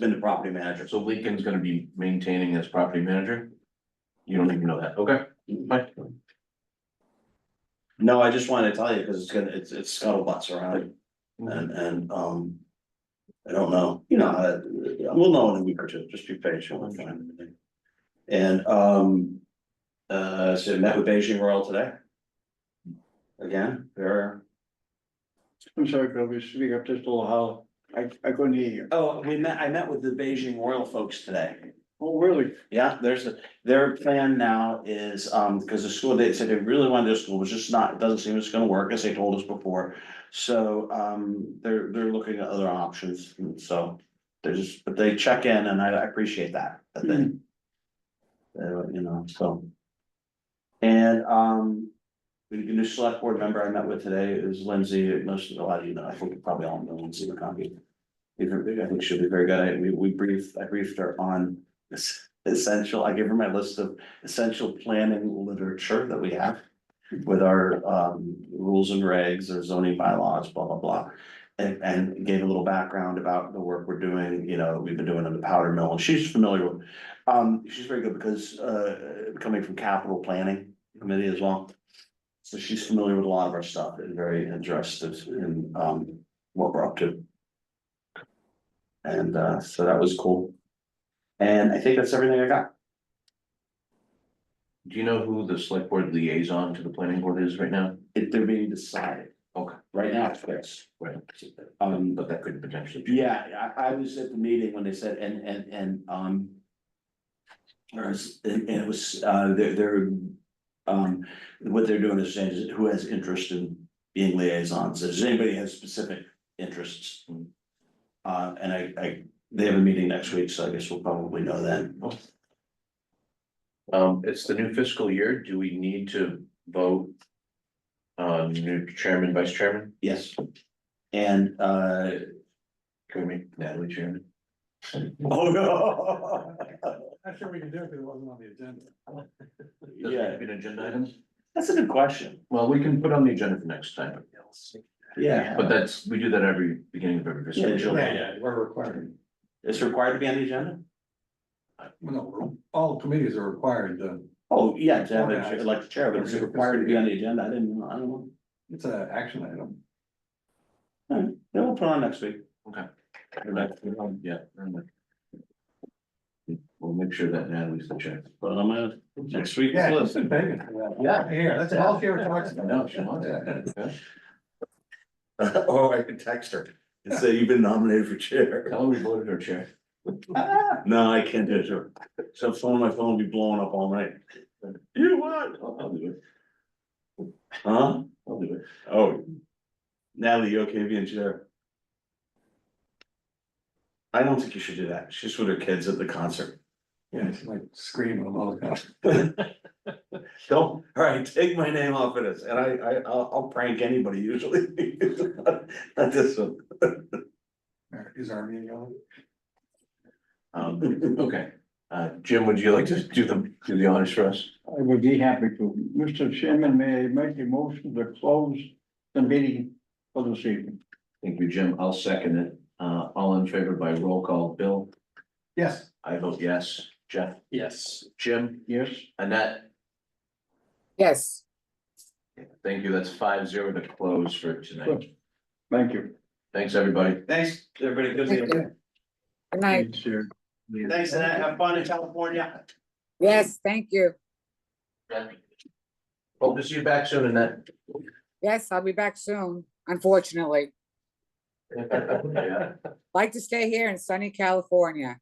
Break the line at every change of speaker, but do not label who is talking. been the property manager.
So Lincoln's gonna be maintaining as property manager? You don't even know that, okay, fine.
No, I just wanted to tell you, because it's gonna, it's, it's scuttlebutts around
Mm-hmm.
and, and, um. I don't know, you know, uh, we'll know in a week or two, just be patient, we'll find everything. And, um. Uh, so I met with Beijing Royal today. Again, they're,
I'm sorry, Bill, you speak up just a little hollow. I, I couldn't hear you.
oh, we met, I met with the Beijing Royal folks today.
Oh, really?
Yeah, there's a, their plan now is, um, because the school, they said they really wanted their school, was just not, it doesn't seem it's gonna work, as they told us before. So, um, they're, they're looking at other options, and so, they're just, but they check in and I I appreciate that, that they. they, you know, so. And, um, the new select board member I met with today is Lindsay, most of a lot of you know, I think you probably all know Lindsay McConkey. I think she'll be very good, I, we, we briefed, I briefed her on this essential, I give her my list of essential planning literature that we have. With our um rules and regs, our zoning bylaws, blah, blah, blah. And and gave a little background about the work we're doing, you know, that we've been doing in the powder mill, and she's familiar with. Um, she's very good because uh coming from capital planning committee as well. So she's familiar with a lot of our stuff and very interested in um what we're up to. And uh, so that was cool. And I think that's everything I got.
Do you know who the select board liaison to the planning board is right now?
It, they're being decided.
Okay.
Right now, it's Chris.
Right.
Um,
But
but,
that could potentially. change.
yeah, I, I was at the meeting when they said, and, and, and, um. Or is, and, and it was, uh, they're, they're, um, what they're doing is saying is who has interest in being liaisons, does anybody have specific interests? Uh, and I, I, they have a meeting next week, so I guess we'll probably know then.
Um, it's the new fiscal year, do we need to vote? On new chairman, vice chairman,
Yes. And, uh,
can we make Natalie chairman?
oh, no.
I'm sure we could do it if it wasn't on the agenda.
Does it have to be an agenda item?
That's a good question.
Well, we can put on the agenda for next time,
Yeah.
but that's, we do that every beginning of every fiscal
Yeah,
year.
July.
Yeah, yeah, we're required.
It's required to be on the agenda?
Well, no, all committees are required to,
Oh, yeah, to have
Yeah.
a, like the chair, but it's required to be on the agenda. I didn't, know. I don't know.
it's an action item.
Then we'll put it on next week.
Yeah. I'm like- We'll make sure that Natalie's the chair.
Put it on my next week's
Yeah,
list.
she's been begging for that.
Yeah.
Here, that's all she ever talks about.
No, she wants it. Yeah.
Or Oh, I could text her and say, you've been nominated for chair.
Tell her we voted her chair.
No, I can't do it. sir. So phone, my phone will be blowing up all night. You what?
I'll, I'll do it.
Huh?
I'll do it.
Oh. Natalie, you okay being chair? I don't think you should do that. She's with her kids at the concert.
Yeah, she's like screaming all the time.
Don't, all right, take my name off of this, and I, I, I'll, I'll prank anybody usually. Not this one.
Is our meeting on?
Um, okay, uh, Jim, would you like to do the, do the honors for us?
I would be happy to. Mr. Chairman, may I make a motion to close the meeting for this evening?
Thank you, Jim. I'll second it. Uh, all in favor by roll call. Bill,
Yes.
I vote yes. Jeff,
Yes.
Jim,
Yes?
Annette,
Yes.
thank you. That's five zero to close for tonight.
Thank you.
Thanks, everybody.
Thanks, everybody, good
Thank
evening.
you. Good night.
Sure.
Thanks, and have fun in California.
Yes, thank you.
Hope to see you back soon, Annette.
Yes, I'll be back soon, unfortunately.
Yeah.
Like to stay here in sunny California.